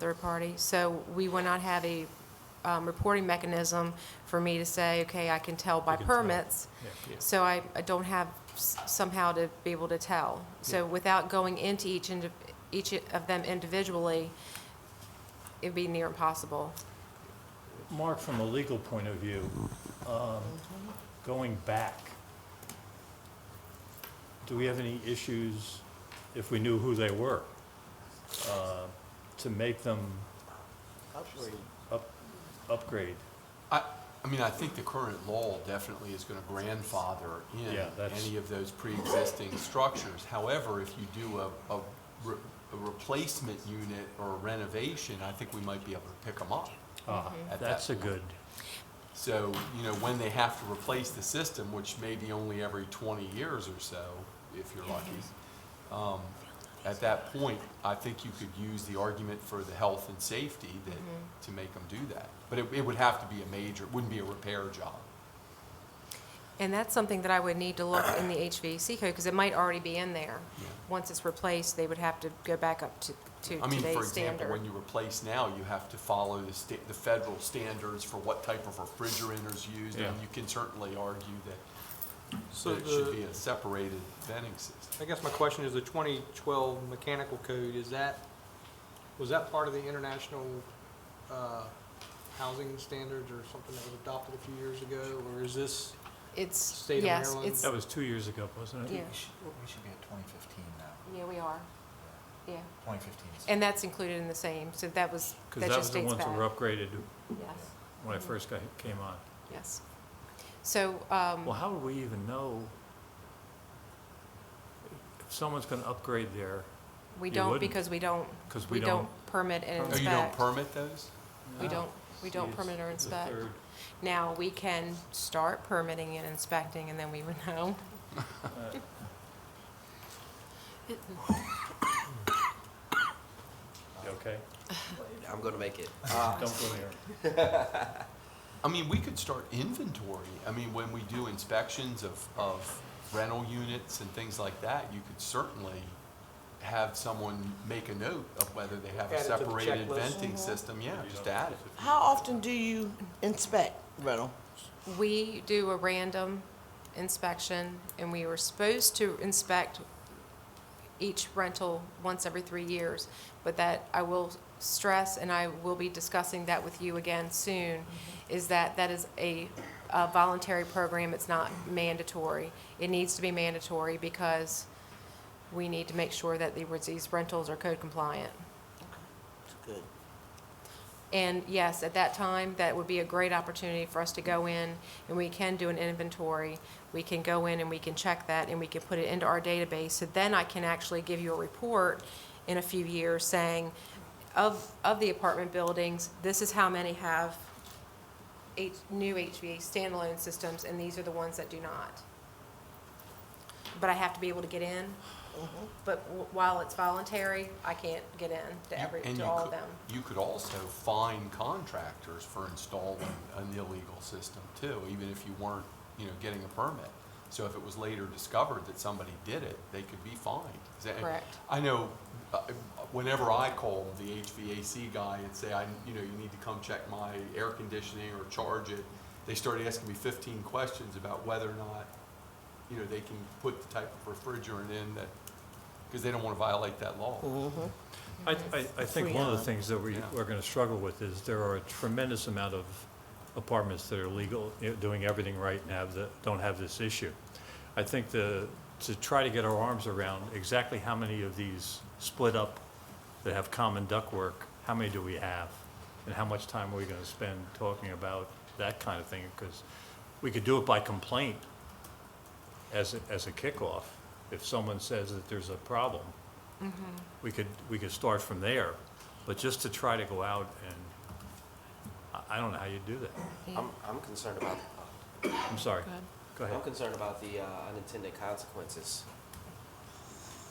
third party. So we will not have a um, reporting mechanism for me to say, okay, I can tell by can tell. permits. So I I don't have s- somehow to be able to tell. So without going into each, indi- each of them individually, it'd be near impossible. Mark, from a legal point of view, um, going back, do we have any issues if we knew who they were? uh, To make them up- upgrade? I, I mean, I think the current law definitely is gonna grandfather in Yeah, that's- any of those pre-existing structures. However, if you do a, a, re- a replacement unit or renovation, I think we might be able to pick them up. Ah, Mm-hmm. At That's a that point. good, So, you know, when they have to replace the system, which may be only every twenty years or so, if you're lucky, um, at that point, I think you could use the argument for the health and safety that, to make them do that. But it, it would have to be a major, it wouldn't be a repair job. And that's something that I would need to look in the HVAC code, because it might already be in there. Yeah. Once it's replaced, they would have to go back up to to I mean, for today's example, standard. when you replace now, you have to follow the sta, the federal standards for what type of refrigerant is used. And Yeah. you can certainly argue So that it should be the, a separated venting system. I guess my question is the 2012 mechanical code, is that, was that part of the international uh, housing standards or something that was adopted a few years ago? Or is this, It's, State of yes, Maryland? it's, that was two years ago, wasn't it? yeah, We should, we should be at twenty fifteen now, yeah, we are, yeah. twenty fifteen. And that's included in the same, so that was, Because that that was just the dates ones back. Mm-hmm. that were upgraded Yes, when I first got, came on. yes. So, Well, um, how would we even know if someone's going to upgrade there? we you don't, wouldn't, because we don't, 'cause we we don't don't- permit and Oh, you don't inspect. permit those? We don't, we don't See, it's- permit or it's a inspect. third. Now, we can start permitting and inspecting, and then we would know. You Okay, I'm gonna make it. don't go there. I mean, we could start inventory. I mean, when we do inspections of, of rental units and things like that, you could certainly have someone make a note of whether they have a Add it to the separated checklist. Mm-hmm. venting system. Yeah, just add it. How often do you inspect rental? We do a random inspection, and we were supposed to inspect each rental once every three years, but that I will stress, and I will be discussing that with you again soon, is that that is a a voluntary program, it's not mandatory. It needs to be mandatory because we need to make sure that the- these rentals are code compliant. It's good. And yes, at that time, that would be a great opportunity for us to go in, and we can do an inventory. We can go in and we can check that, and we can put it into our database. So then I can actually give you a report in a few years saying, of, of the apartment buildings, this is how many have H, new HVA standalone systems, and these are the ones that do not. But I have to be able to get in. Mm-hmm. But w- while it's voluntary, I can't get in to every, And to you all of could- them. You could also fine contractors for installing an illegal system too, even if you weren't, you know, getting a permit. So if it was later discovered that somebody did it, they could be fined. Is that- Correct. I know, uh, whenever I call the HVAC guy and say, I, you know, you need to come check my air conditioning or charge it, they start asking me fifteen questions about whether or not, you know, they can put the type of refrigerant in that, because they don't want to violate that law. I, I, I think one of the things that we, Yeah. we're gonna struggle with is there are a tremendous amount of apartments that are legal, you know, doing everything right and have the, don't have this issue. I think the, to try to get our arms around exactly how many of these split up that have common ductwork, how many do we have? And how much time are we gonna spend talking about that kind of thing? Because we could do it by complaint as, a- as a kickoff. If someone says that there's a problem, we could, we could start from there, but just to try to go out and, I, I don't know how you do that. I'm, I'm concerned about, I'm sorry. Go ahead. I'm concerned about the uh, unintended consequences.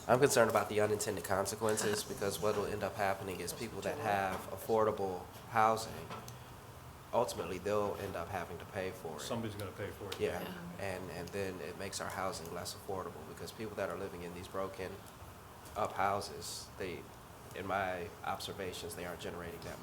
I'm concerned about the unintended consequences because what will end up happening is people that have affordable housing, ultimately, they'll end up having to pay for it. Somebody's gonna pay for it. Yeah, and, and then it makes our housing less affordable, because people that are living in these broken up houses, they, in my observations, they aren't generating that